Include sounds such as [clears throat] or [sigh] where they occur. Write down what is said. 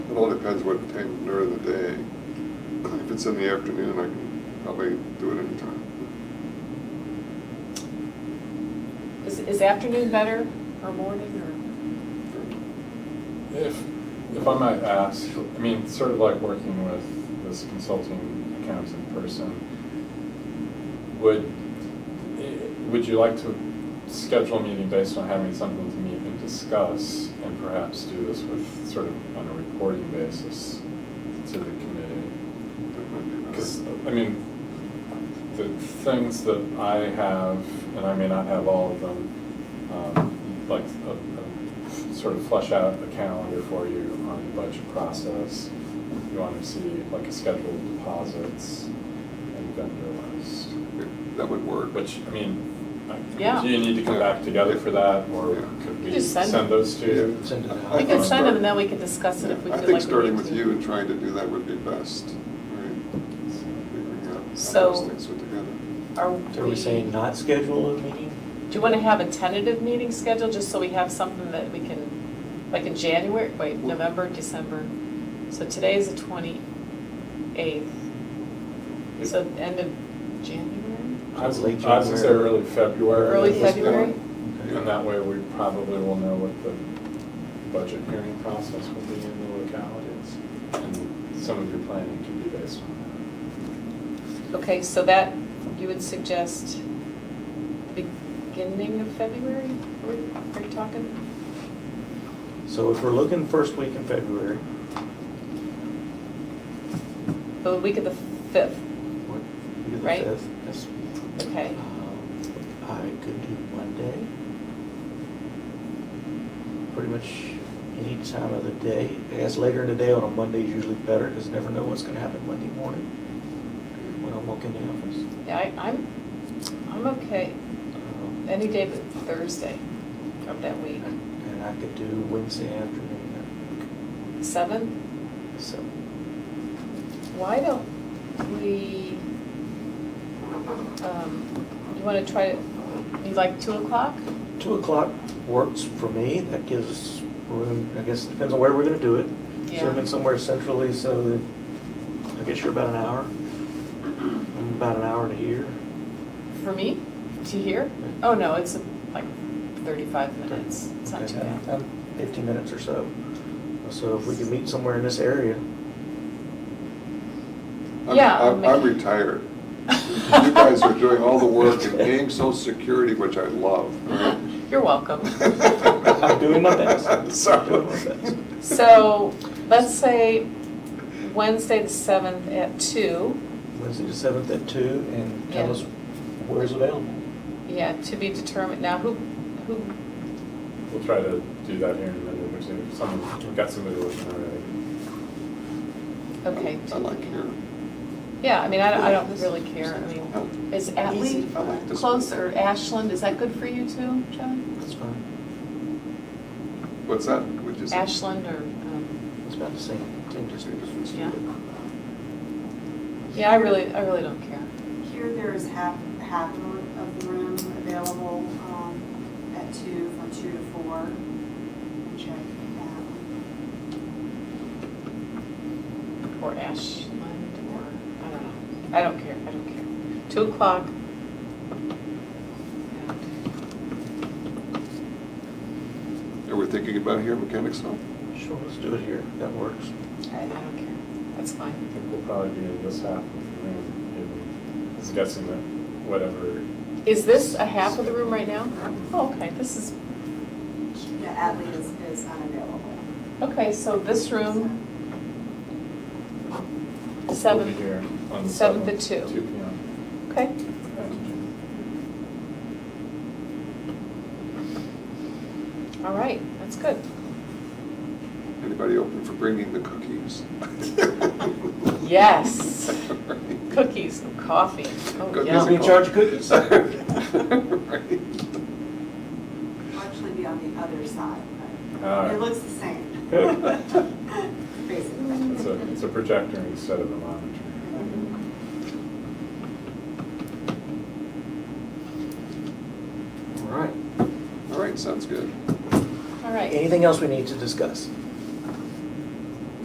depends what time during the day. If it's in the afternoon, I can probably do it anytime. Is, is afternoon better or morning If, if I might ask, I mean, sort of like working with this consulting accountant person, would, would you like to schedule a meeting based on having something to meet and discuss? And perhaps do this with sort of on a reporting basis to the committee? That might be better. Because, I mean, the things that I have, and I may not have all of them, um, like, uh, uh, sort of flesh out a calendar for you on the budget process. You want to see like a schedule of deposits and vendor list, That would work. which, I mean, I- Yeah. do you need to come back together for that, or Yeah. could You we just send them. send those to you? Yeah. Send it or? out. We could Um, send them and then we could discuss it if we I feel like we need to. think starting with you and trying to do that would be best, right? Figuring out how So- those things fit together. Are So are we saying not schedule a meeting? Do you want to have a tentative meeting scheduled, just so we have something that we can, like in January, wait, November, December? So today is the twenty-eighth, so end of January, I was, Late I was gonna say January. early February. early Let's do it. Oh, February? And that way, we probably will know what the budget hearing process will be in the localities. And some of your planning can be based on Okay, so that, you would suggest beginning of February, are we, are you talking? So if we're looking first week in February, The week of the fifth, what, you the Right. fifth? Yes. okay. Um, I could do Monday. Pretty much any time of the day. I guess later in the day on a Monday is usually better because never know what's going to happen Monday morning when I walk in the office. Yeah, I, I'm, I'm okay, Um, any day but Thursday of that week. And I could do Wednesday afternoon Seventh? at seven. Why don't we, um, you wanna try, you like two o'clock? Two o'clock works for me. That gives us room, I guess, it depends on where we're gonna do it. Yeah. Zoom in somewhere centrally so that, I guess you're about an hour. [clears throat] I'm about an hour to here. For me, to here? Oh, no, it's like thirty-five minutes, it's not too Okay, bad. [laughs] um, Fifteen minutes or so. So if we can meet somewhere in this area, I'm- Yeah, I'll I'm, I'm make- retired. You guys are doing all the work and paying social security, which I love. [laughs] You're welcome. I'm doing my best. Oh. Sorry. Doing my best. So, let's say Wednesday the seventh at two, Wednesday the seventh at two and tell Yeah. us where's available. yeah, to be determined, now who, who, it. We'll try to do that here in a minute, which if someone, we've got somebody looking already. okay. I like here. um, Yeah, I mean, I, I don't really care, I mean, is Atlee Easy. I like this one. close or Ashland, is that good for you too, John? That's fine. What's that? Would you say? Ashland or, um, It's about the same. Don't you say difference? yeah. Yeah, I really, I really don't care. Here, there is half, half of the room available um, at two, from two to four. Check that. Or Ashland or, I don't know. I don't care, I don't care. Two o'clock. Are we thinking about here, Mechanicsville? Sure, let's do it here. That works. I, I don't care. That's I fine. think we'll probably be in this half of the room, even guessing that whatever. Is this a half of the room right now? Oh, okay, this is, Yeah, Atlee is, is unavailable. okay, so this room, will be seven, here on the seventh seventh. at two. Two P M. okay. All right, that's good. Anybody open for bringing the cookies? Yes. [laughs] Cookies and coffee. Oh, Cookies Who's yum. in charge of cookies? [laughs] Right. It'll actually be on the other side, All but right. it looks the same. [laughs] It's Basically. a, it's a projector instead of a monitor. All right. All right, sounds good. All right. Anything else we need to discuss?